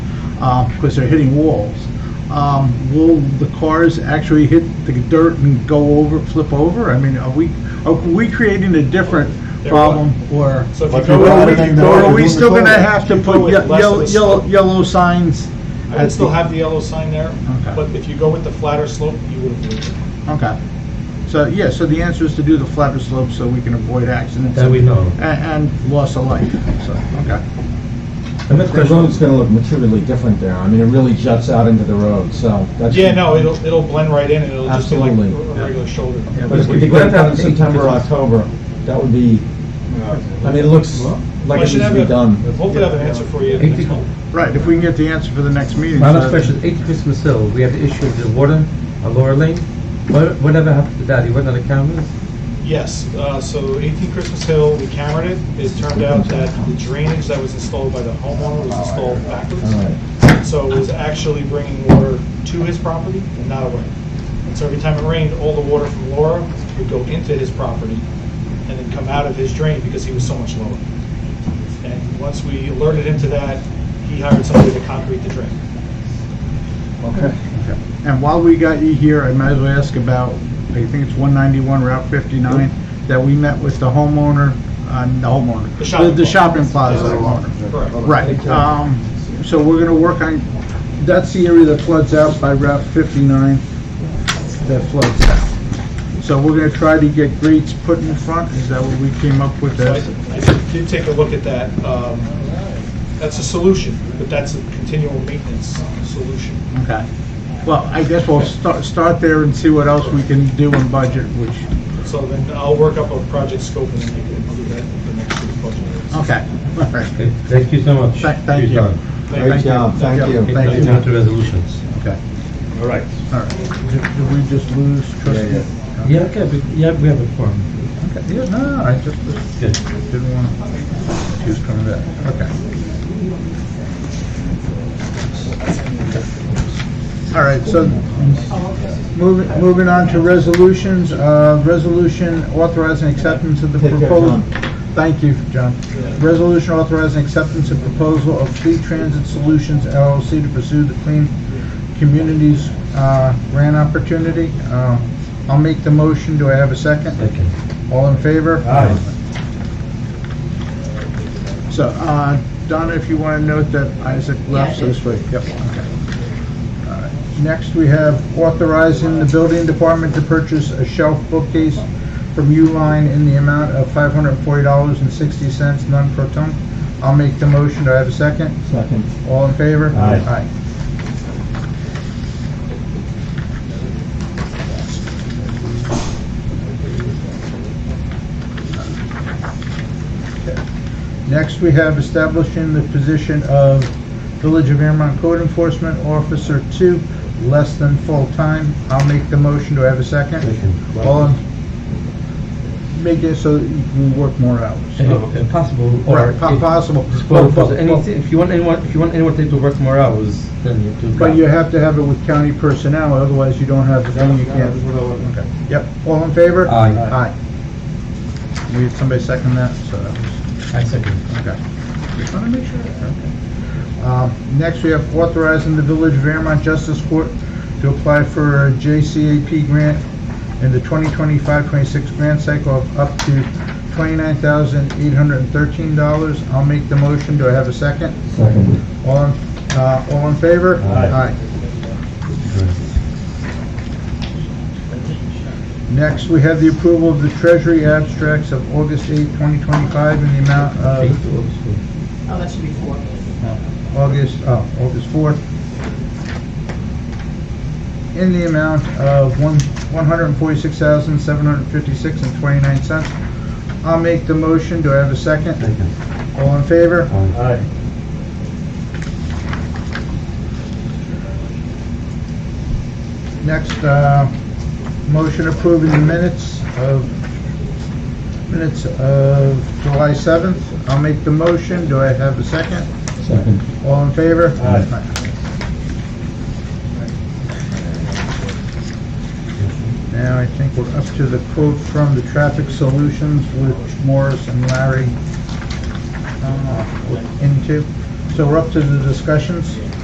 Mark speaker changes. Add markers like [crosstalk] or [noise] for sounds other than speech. Speaker 1: uh, because they're hitting walls, um, will the cars actually hit the dirt and go over, flip over? I mean, are we, are we creating a different
Speaker 2: They're
Speaker 1: problem or?
Speaker 2: So if
Speaker 1: Or
Speaker 2: you go
Speaker 1: are we-
Speaker 2: everything that
Speaker 1: or
Speaker 2: I
Speaker 1: are
Speaker 2: can
Speaker 1: we
Speaker 2: do
Speaker 1: still
Speaker 2: with
Speaker 1: gonna
Speaker 2: that,
Speaker 1: have to
Speaker 2: you
Speaker 1: put
Speaker 2: go with
Speaker 1: ye-
Speaker 2: less of
Speaker 1: yellow,
Speaker 2: the
Speaker 1: yellow,
Speaker 2: slope.
Speaker 1: yellow signs?
Speaker 2: I would still have the yellow sign there,
Speaker 1: Okay.
Speaker 2: but if you go with the flatter slope, you would have moved it.
Speaker 1: Okay. So, yeah, so the answer is to do the flatter slope so we can avoid accidents.
Speaker 3: That we know.
Speaker 1: a- And, loss of life, so, okay.
Speaker 4: And the the road's gonna look materially different there. I mean, it really juts out into the road, so that's.
Speaker 2: Yeah, no, it'll, it'll blend right in, and it'll just be like a
Speaker 4: Absolutely.
Speaker 2: regular shoulder.
Speaker 1: Yeah,
Speaker 4: But if we could get that in September, or October, that would be, I mean, it looks like
Speaker 2: I
Speaker 4: it needs
Speaker 2: should
Speaker 4: to
Speaker 2: have
Speaker 4: be
Speaker 2: a-
Speaker 4: done.
Speaker 2: Hopefully have an answer for you next month.
Speaker 1: Right, if we can get the answer for the next meeting.
Speaker 3: My
Speaker 1: so
Speaker 3: last
Speaker 1: that's-
Speaker 3: question, is 80 Christmas Hill, we have the issue of the water on Laura Lane. What- Whatever happened to that? He went on the cameras?
Speaker 2: Yes, uh, so 18 Christmas Hill, we cambered it. It turned out that the drainage that was installed by the homeowner was installed
Speaker 4: All right.
Speaker 2: backwards. So it was actually bringing water to his property and not away. And so every time it rained, all the water from Laura would go into his property and then come out of his drain because he was so much lower. And once we alerted him to that, he hired somebody to concrete the drain.
Speaker 4: Okay.
Speaker 1: And while we got you here, I might as well ask about, I think it's 191 Route 59, that we met with the homeowner, uh, the homeowner.
Speaker 2: The shopping
Speaker 1: The
Speaker 2: plaza.
Speaker 1: shopping plaza owner.
Speaker 2: Correct.
Speaker 1: Right. um, So we're going to work on, that's the area that floods out by Route 59, that floods out. So we're going to try to get grates put in front, is that what we came up with?
Speaker 2: So
Speaker 1: as-
Speaker 2: I I did take a look at that. Um, That's a solution, but that's a continual maintenance solution.
Speaker 1: Okay. Well, I guess we'll start, start there and see what else we can do in budget, which
Speaker 2: So then I'll work up a project scope and then we can do that for next year's budget.
Speaker 1: Okay, [laughs] all right.
Speaker 3: Okay, Thank you so much.
Speaker 1: Thank- thank
Speaker 3: Your
Speaker 1: you.
Speaker 3: time.
Speaker 4: Great job, thank you.
Speaker 3: Okay,
Speaker 1: Thank you.
Speaker 3: now we move to resolutions.
Speaker 1: Okay. All right. Did did we just lose trustee?
Speaker 3: Yeah, okay, but- yeah, we have a form.
Speaker 1: Okay, Yeah, no, no, I just
Speaker 3: Good.
Speaker 1: didn't want to, she was coming back. Okay. All right, so moving, moving on to resolutions, uh, resolution authorizing acceptance of the
Speaker 4: Take care,
Speaker 1: proposal.
Speaker 4: John.
Speaker 1: Thank you, John. Resolution authorizing acceptance of proposal of Fleet Transit Solutions LLC to pursue the Clean Communities uh, Grant Opportunity. Uh, I'll make the motion. Do I have a second?
Speaker 3: Second.
Speaker 1: All in favor?
Speaker 4: Aye.
Speaker 1: So, uh, Donna, if you want to note that Isaac left, so to speak. Yep, okay. All right. Next, we have authorizing the building department to purchase a shelf bookcase from Uline in the amount of $540.60, none pro tunc. I'll make the motion. Do I have a second?
Speaker 4: Second.
Speaker 1: All in favor?
Speaker 4: Aye.
Speaker 1: Aye. Next, we have establishing the position of Village of Airmont Code Enforcement Officer Two, less than full-time. I'll make the motion. Do I have a second?
Speaker 3: Second.
Speaker 1: All in, make it so that you can work more hours.
Speaker 3: If- if Possible, or.
Speaker 1: Right, po-
Speaker 3: if-
Speaker 1: possible.
Speaker 3: Well,
Speaker 1: But- but-
Speaker 3: anything, if you want anyone, if you want anyone to work more hours, then you have to.
Speaker 1: But you have to have it with county personnel, otherwise you don't have the thing, you can't. Okay. Yep, all in favor?
Speaker 3: Aye.
Speaker 1: Aye. We had somebody second that, so that was,
Speaker 3: I second.
Speaker 1: okay. Just wanna make sure, okay. Um, Next, we have authorizing the Village of Airmont Justice Court to apply for a JCAP grant in the 2025-26 grant cycle of up to $29,813. I'll make the motion, do I have a second?
Speaker 4: Second.
Speaker 1: All, in- uh, all in favor?
Speaker 4: Aye.
Speaker 1: Next, we have the approval of the treasury abstracts of August 8, 2025, in the amount of
Speaker 5: Oh, that should be four.
Speaker 1: August, oh, August 4th, in the amount of one one hundred forty-six thousand seven hundred fifty-six and twenty-nine cents. I'll make the motion. Do I have a second? All in favor?
Speaker 4: Aye.
Speaker 1: Next, uh, motion approving the minutes of, minutes of July 7th. I'll make the motion. Do I have a second?
Speaker 4: Second.
Speaker 1: All in favor?
Speaker 4: Aye.
Speaker 1: Now, I think we're up to the quote from the Traffic Solutions, which Morris and Larry uh, looked into. So we're up to the discussions.